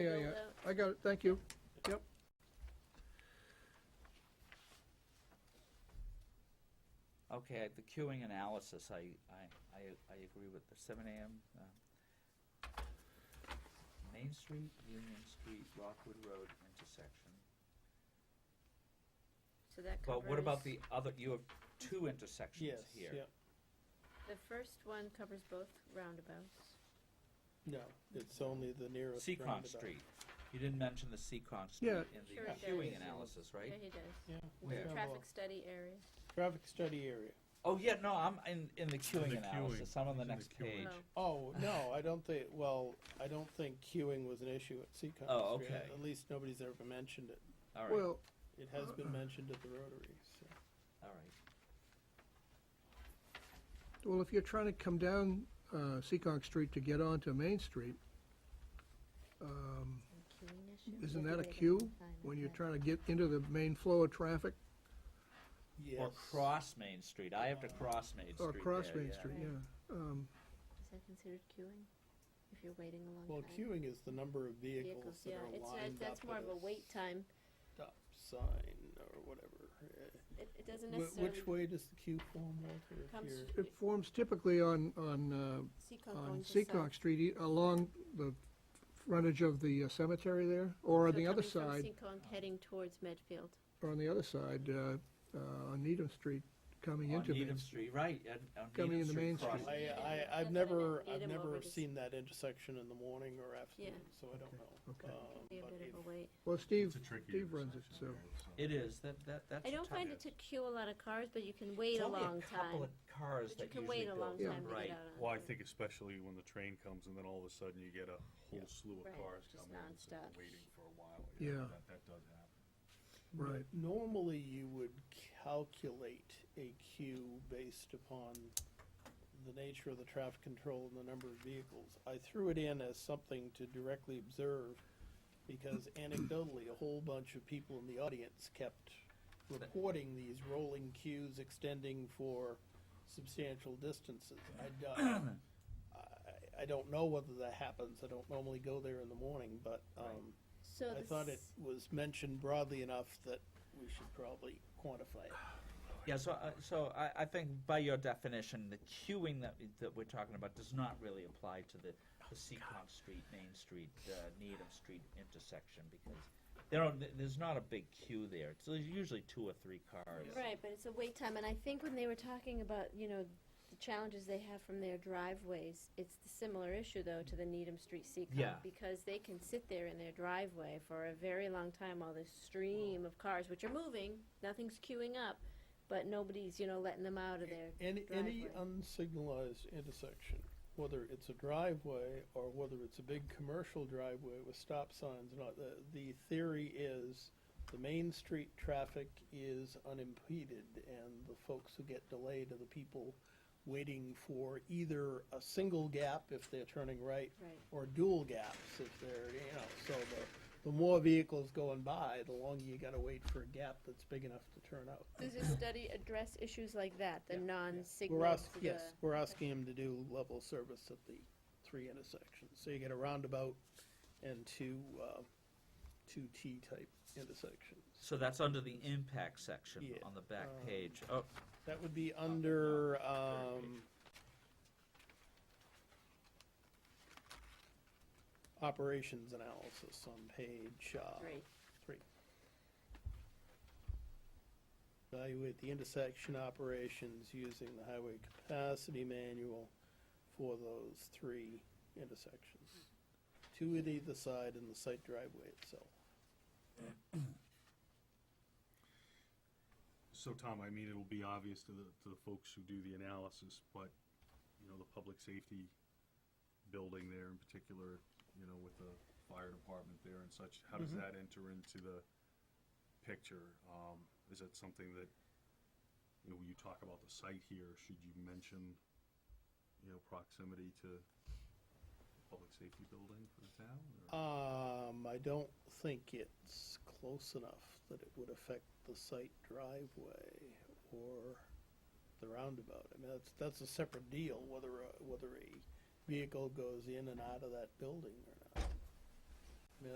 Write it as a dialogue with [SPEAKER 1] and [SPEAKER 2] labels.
[SPEAKER 1] I got it, thank you. Yep.
[SPEAKER 2] Okay, the queuing analysis, I, I, I, I agree with the seven AM, uh, Main Street, Union Street, Rockwood Road intersection.
[SPEAKER 3] So that covers.
[SPEAKER 2] But what about the other, you have two intersections
[SPEAKER 4] Yes,
[SPEAKER 2] here.
[SPEAKER 4] yeah,
[SPEAKER 3] The first one covers both roundabouts.
[SPEAKER 4] no, it's only the nearest
[SPEAKER 2] Seacon
[SPEAKER 4] roundabout.
[SPEAKER 2] Street, you didn't mention the Seacon Street
[SPEAKER 1] Yeah.
[SPEAKER 2] in
[SPEAKER 3] Sure it
[SPEAKER 2] the queuing
[SPEAKER 3] does.
[SPEAKER 2] analysis,
[SPEAKER 3] Yeah,
[SPEAKER 2] right?
[SPEAKER 3] he does.
[SPEAKER 4] Yeah. we
[SPEAKER 2] Where?
[SPEAKER 4] have a
[SPEAKER 3] Traffic study area.
[SPEAKER 4] Traffic study area.
[SPEAKER 2] Oh, yeah, no, I'm in, in the queuing
[SPEAKER 5] queuing.
[SPEAKER 2] analysis, I'm on the
[SPEAKER 5] It's in the
[SPEAKER 2] next
[SPEAKER 5] queuing.
[SPEAKER 2] page.
[SPEAKER 3] Oh.
[SPEAKER 4] Oh, no, I don't think, well, I don't think queuing was an issue at Seacon.
[SPEAKER 2] Oh,
[SPEAKER 4] Street.
[SPEAKER 2] okay.
[SPEAKER 4] At least nobody's ever mentioned it.
[SPEAKER 2] All right,
[SPEAKER 1] Well,
[SPEAKER 4] It has been mentioned at the Rotary, so.
[SPEAKER 2] all right.
[SPEAKER 1] well, if you're trying to come down, uh, Seccong Street to get onto Main Street, um,
[SPEAKER 3] Queuing issue?
[SPEAKER 1] Isn't
[SPEAKER 3] Maybe
[SPEAKER 1] that a
[SPEAKER 3] they didn't
[SPEAKER 1] queue
[SPEAKER 3] define it
[SPEAKER 1] when you're
[SPEAKER 3] right.
[SPEAKER 1] trying to get into the main flow of traffic
[SPEAKER 2] Or
[SPEAKER 4] Yes.
[SPEAKER 2] cross Main Street, I have to cross Main Street
[SPEAKER 1] or across
[SPEAKER 2] there,
[SPEAKER 1] Main
[SPEAKER 2] yeah.
[SPEAKER 1] Street, yeah. Um,
[SPEAKER 3] Is that considered queuing? If you're waiting a long time?
[SPEAKER 4] Well, queuing is the number of
[SPEAKER 3] Vehicles,
[SPEAKER 4] vehicles that
[SPEAKER 3] yeah,
[SPEAKER 4] are
[SPEAKER 3] it's,
[SPEAKER 4] lined
[SPEAKER 3] not-
[SPEAKER 4] up
[SPEAKER 3] that's more
[SPEAKER 4] at
[SPEAKER 3] of a wait time.
[SPEAKER 4] stop sign or whatever. Eh,
[SPEAKER 3] It, it doesn't
[SPEAKER 4] wh-
[SPEAKER 3] necessarily
[SPEAKER 4] Which way does the queue form, Walter, if
[SPEAKER 3] comes
[SPEAKER 4] you're-
[SPEAKER 1] It forms typically on, on, uh,
[SPEAKER 3] Seacon
[SPEAKER 1] on
[SPEAKER 3] going to
[SPEAKER 1] Seccong
[SPEAKER 3] South.
[SPEAKER 1] Street, e- along the frontage of the uh, cemetery there, or on
[SPEAKER 3] So
[SPEAKER 1] the other
[SPEAKER 3] coming from
[SPEAKER 1] side,
[SPEAKER 3] Seacon heading towards Medfield.
[SPEAKER 1] or on the other side, uh, uh, on Needham Street, coming
[SPEAKER 2] On
[SPEAKER 1] into Main
[SPEAKER 2] Needham
[SPEAKER 1] Street.
[SPEAKER 2] Street, right, and- on
[SPEAKER 1] Coming into
[SPEAKER 2] Needham Street
[SPEAKER 1] Main
[SPEAKER 2] crossing.
[SPEAKER 1] Street.
[SPEAKER 4] I,
[SPEAKER 3] Yeah,
[SPEAKER 4] I,
[SPEAKER 3] that's what I
[SPEAKER 4] I've
[SPEAKER 3] meant,
[SPEAKER 4] never,
[SPEAKER 3] lead
[SPEAKER 4] I've
[SPEAKER 3] 'em
[SPEAKER 4] never
[SPEAKER 3] over to s-
[SPEAKER 4] seen that intersection in the morning or afternoon, so I don't know.
[SPEAKER 1] Okay.
[SPEAKER 4] Um,
[SPEAKER 3] Be a
[SPEAKER 4] but
[SPEAKER 3] bit
[SPEAKER 4] if-
[SPEAKER 3] of a wait.
[SPEAKER 1] Well, Steve,
[SPEAKER 5] It's a tricky
[SPEAKER 1] Steve runs it, so.
[SPEAKER 5] intersection there,
[SPEAKER 2] It is, that, that, that's.
[SPEAKER 3] I
[SPEAKER 2] a
[SPEAKER 3] don't
[SPEAKER 2] tough-
[SPEAKER 3] find it to queue a lot of cars, but you can
[SPEAKER 2] It's
[SPEAKER 3] wait a
[SPEAKER 2] only
[SPEAKER 3] long
[SPEAKER 2] Couple
[SPEAKER 3] time.
[SPEAKER 2] of cars
[SPEAKER 3] But you
[SPEAKER 2] that
[SPEAKER 3] can
[SPEAKER 2] usually
[SPEAKER 3] wait a long
[SPEAKER 2] build.
[SPEAKER 1] Yeah.
[SPEAKER 3] time to
[SPEAKER 2] Right.
[SPEAKER 3] get out on.
[SPEAKER 5] Well, I think especially when the train comes and then all of a sudden you get a whole slew of
[SPEAKER 3] Right,
[SPEAKER 5] cars
[SPEAKER 3] just
[SPEAKER 5] coming in, so
[SPEAKER 3] nonstop.
[SPEAKER 5] you're waiting for a while.
[SPEAKER 1] Yeah.
[SPEAKER 5] That, that does happen.
[SPEAKER 1] Right.
[SPEAKER 4] Normally, you would calculate a queue based upon the nature of the traffic control and the number of vehicles. I threw it in as something to directly observe, because anecdotally, a whole bunch of people in the audience kept reporting these rolling queues extending for substantial distances. I, don't- I, I don't know whether that happens, I don't normally go there in the morning, but, um,
[SPEAKER 3] So
[SPEAKER 4] I
[SPEAKER 3] this-
[SPEAKER 4] thought it was mentioned broadly enough that we should probably quantify it.
[SPEAKER 2] Yeah, so, uh, so I, I think by your definition, the queuing that, that we're talking about does not really apply to the,
[SPEAKER 4] Oh,
[SPEAKER 2] the Seacon Street, Main Street, uh, Needham Street intersection, because there are, there's not a big queue there, it's usually two or three cars.
[SPEAKER 3] Right, but it's a wait time, and I think when they were talking about, you know, the challenges they have from their driveways, it's the similar issue though to the Needham Street Seacon.
[SPEAKER 2] Yeah.
[SPEAKER 3] Because they can sit there in their driveway for a very long time while this stream of cars, which are moving, nothing's queuing up, but nobody's, you know, letting them out of there.
[SPEAKER 4] Any, any
[SPEAKER 3] Driveway.
[SPEAKER 4] unsignalized intersection, whether it's a driveway or whether it's a big commercial driveway with stop signs, and all, the, the theory is the main street traffic is unimpeded and the folks who get delayed are the people waiting for either a single gap if they're turning right
[SPEAKER 3] Right.
[SPEAKER 4] or dual gaps if they're, you know, so the, the more vehicles going by, the longer you gotta wait for a gap that's big enough to turn out.
[SPEAKER 3] Does this study address issues like that, the non-signal?
[SPEAKER 4] We're ask, yes, we're asking him to do level service at the three intersections, so you get a roundabout and two, uh, two T-type intersections.
[SPEAKER 2] So that's under the impact section
[SPEAKER 4] Yeah,
[SPEAKER 2] on the back
[SPEAKER 4] um,
[SPEAKER 2] page, oh,
[SPEAKER 4] That would be under, um, operations analysis on page, uh,
[SPEAKER 3] Great.
[SPEAKER 4] Three. Evaluate the intersection operations using the highway capacity manual for those three intersections. Two at either side and the site driveway itself.
[SPEAKER 5] So Tom, I mean, it'll be obvious to the, to the folks who do the analysis, but, you know, the public safety building there in particular, you know, with the fire department there and such, how does that enter into the picture? Um, is that something that, you know, when you talk about the site here, should you mention, you know, proximity to public safety building for the town? or-
[SPEAKER 4] Um, I don't think it's close enough that it would affect the site driveway or the roundabout. I mean, uh, that's, that's a separate deal, whether, a- whether a vehicle goes in and out of that building or